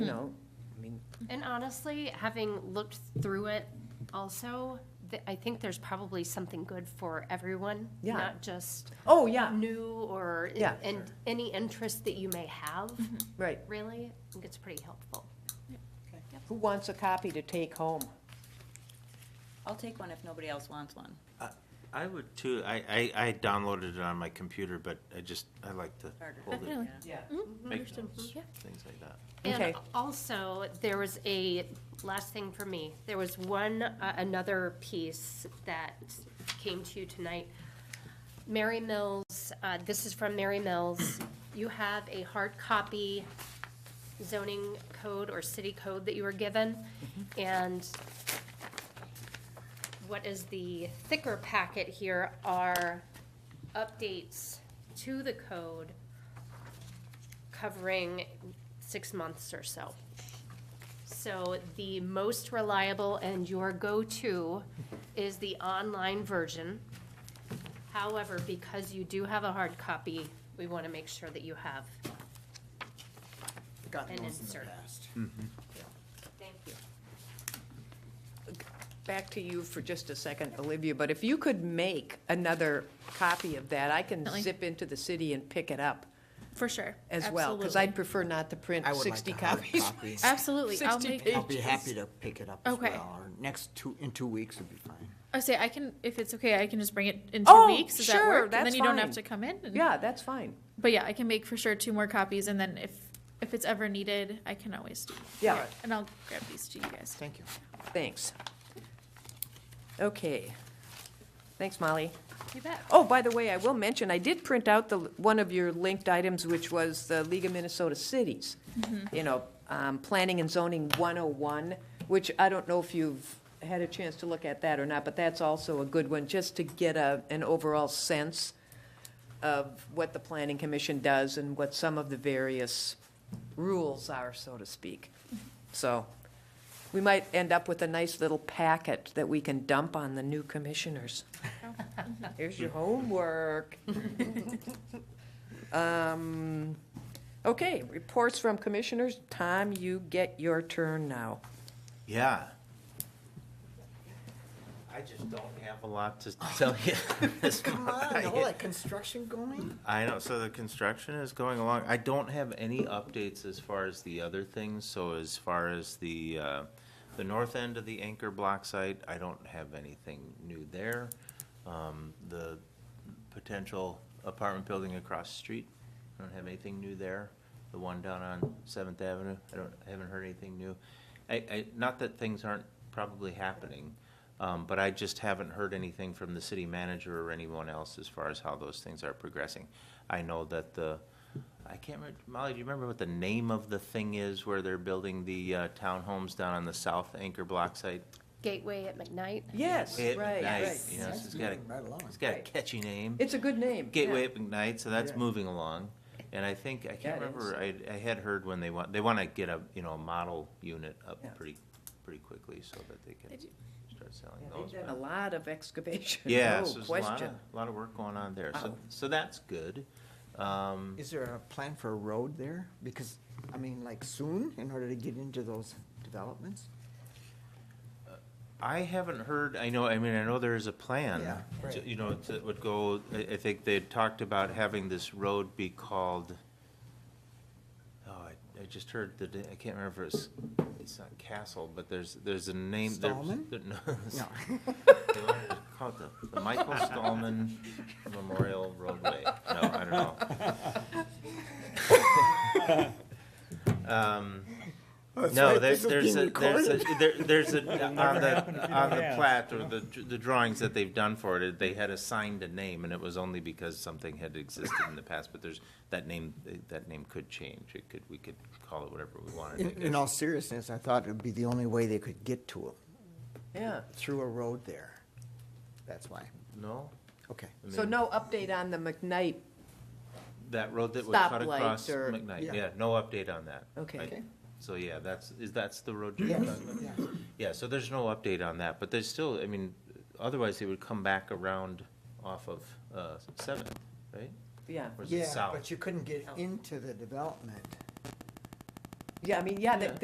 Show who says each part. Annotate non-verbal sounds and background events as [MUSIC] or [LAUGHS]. Speaker 1: know, I mean,
Speaker 2: And honestly, having looked through it also, th- I think there's probably something good for everyone.
Speaker 1: Yeah.
Speaker 2: Not just
Speaker 1: oh, yeah,
Speaker 2: new or,
Speaker 1: Yeah. Mm-hmm.
Speaker 2: and any interest that you may have,
Speaker 1: right.
Speaker 2: really, I think it's pretty helpful.
Speaker 1: Who wants a copy to take home?
Speaker 3: I'll take one if nobody else wants one.
Speaker 4: I would too. I, I, I downloaded it on my computer, but I just, I like to
Speaker 3: Harder.
Speaker 4: hold it,
Speaker 5: Definitely.
Speaker 1: Yeah.
Speaker 4: make notes, things like that.
Speaker 1: Okay.
Speaker 2: And also, there was a, last thing for me, there was one, uh, another piece that came to you tonight. Mary Mills, uh, this is from Mary Mills. You have a hard copy zoning code or city code that you were given. And what is the thicker packet here are updates to the code covering six months or so. So the most reliable and your go-to is the online version. However, because you do have a hard copy, we want to make sure that you have
Speaker 6: gotten
Speaker 2: And
Speaker 6: those in the
Speaker 2: insert.
Speaker 6: past.
Speaker 2: Thank you.
Speaker 1: Back to you for just a second, Olivia, but if you could make another copy of that, I can
Speaker 5: Definitely.
Speaker 1: zip into the city and pick it up
Speaker 5: For sure.
Speaker 1: as well, because I'd prefer not to print
Speaker 6: I would like
Speaker 1: sixty
Speaker 6: a hard
Speaker 1: copies.
Speaker 6: [LAUGHS] copy.
Speaker 5: Absolutely. Absolutely. I'll
Speaker 1: 60
Speaker 5: make,
Speaker 1: pages.
Speaker 6: I'll be happy to pick it up as
Speaker 5: Okay.
Speaker 6: well, or next two, in two weeks would be fine.
Speaker 5: I say I can if it's okay. I can just bring it in two
Speaker 1: Oh,
Speaker 5: weeks. Does that
Speaker 1: sure,
Speaker 5: work? and
Speaker 1: that's
Speaker 5: then you don't have
Speaker 1: fine.
Speaker 5: to come in.
Speaker 1: [LAUGHS]
Speaker 5: and-
Speaker 1: Yeah, that's fine.
Speaker 5: But yeah, I can make for sure two more copies, and then if if it's ever needed, I can always do.
Speaker 1: Yeah,
Speaker 5: And I'll grab these to you guys.
Speaker 6: Thank [LAUGHS] you.
Speaker 1: thanks. Okay. Thanks, Molly.
Speaker 2: You bet.
Speaker 1: Oh, by the way, I will mention, I did print out the, one of your linked items, which was the League of Minnesota Cities.
Speaker 2: Mm-hmm.
Speaker 1: You know, um, Planning and Zoning 101, which I don't know if you've had a chance to look at that or not, but that's also a good one, just to get a, an overall sense of what the Planning Commission does and what some of the various rules are, so to speak. So, we might end up with a nice little packet that we can dump on the new commissioners. Here's your homework. Um, Okay, reports from commissioners. Tom, you get your turn now.
Speaker 4: Yeah. I just don't have a lot
Speaker 6: [LAUGHS]
Speaker 4: to tell you. this
Speaker 6: Come
Speaker 4: month.
Speaker 6: on,
Speaker 4: I-
Speaker 6: all that construction going?
Speaker 4: [LAUGHS] I know, so the construction is going along. I don't have any updates as far as the other things, so as far as the, uh, the north end of the anchor block site, I don't have anything new there. Um, the potential apartment building across the street, I don't have anything new there. The one down on Seventh Avenue, I don't, I haven't heard anything new. I, I, not that things aren't probably happening, um, but I just haven't heard anything from the city manager or anyone else as far as how those things are progressing. I know that the, I can't remember, Molly, do you remember what the name of the thing is where they're building the, uh, townhomes down on the south anchor block site?
Speaker 2: Gateway at McKnight.
Speaker 1: Yes,
Speaker 4: It-
Speaker 1: right,
Speaker 4: nice,
Speaker 1: right.
Speaker 4: You know,
Speaker 6: That's
Speaker 4: it's got a,
Speaker 6: moving right along.
Speaker 4: it's got a
Speaker 1: Right.
Speaker 4: catchy name.
Speaker 1: It's a good name.
Speaker 4: Gateway at McKnight, so that's
Speaker 6: Yeah.
Speaker 4: moving along. And I think, I
Speaker 1: Yeah, it
Speaker 4: can't remember, I, I had heard when they want, they want to get a, you know, a model unit up
Speaker 1: Yeah.
Speaker 4: pretty, pretty quickly so that they
Speaker 5: They
Speaker 4: can
Speaker 5: do-
Speaker 4: start
Speaker 1: Yeah,
Speaker 4: selling
Speaker 1: They've
Speaker 4: those.
Speaker 1: done
Speaker 4: but-
Speaker 1: a lot of excavation,
Speaker 4: Yeah,
Speaker 1: no
Speaker 4: so there's a lot of,
Speaker 1: question.
Speaker 4: lot of work going on there. So,
Speaker 1: Wow.
Speaker 4: so that's good. Um,
Speaker 6: Is there a plan for a road there? Because, I mean, like soon, in order to get into those developments?
Speaker 4: I haven't heard, I know, I mean, I know there is a
Speaker 6: Yeah,
Speaker 4: plan,
Speaker 6: right.
Speaker 4: to- you know, that would go, I, I think they talked about having this road be called, oh, I, I just heard the, da- I can't remember, if it's, it's not Castle, but there's, there's a name. there's-
Speaker 6: Stallman?
Speaker 4: there- No. it's-
Speaker 6: [LAUGHS] No.
Speaker 4: [LAUGHS] they want to call it the- The Michael Stallman Memorial Roadway. No, I don't know. Um, No, there's, there's a, there's a, there- there's a, on the, on the plat or the, the drawings that they've done for it, they had assigned a name and it was only because something had existed in the past, but there's, that name, that name could change. It could, we could call it whatever we wanted. I
Speaker 6: In, in
Speaker 4: guess.
Speaker 6: all seriousness, I thought it'd be the only way they could get to it,
Speaker 1: Yeah,
Speaker 6: through a road there. That's why.
Speaker 4: No?
Speaker 6: Okay.
Speaker 4: I
Speaker 1: so
Speaker 4: mean-
Speaker 1: no update on the McKnight,
Speaker 4: That road that would cut
Speaker 1: Stoplight
Speaker 4: across
Speaker 1: or-
Speaker 4: McKnight,
Speaker 6: Yeah.
Speaker 4: yeah, no update on that.
Speaker 1: Okay.
Speaker 4: Like,
Speaker 6: Okay.
Speaker 4: So, yeah, that's, is, that's the road you're
Speaker 6: Yes,
Speaker 4: talking about?
Speaker 6: yeah.
Speaker 4: Yeah, so there's no update on that, but there's still, I mean, otherwise they would come back around off of, uh, Seventh, right?
Speaker 1: yeah.
Speaker 4: Or is it
Speaker 6: Yeah,
Speaker 4: south?
Speaker 6: but you couldn't get into the development.
Speaker 1: Yeah, I mean, yeah, they-
Speaker 4: Yeah.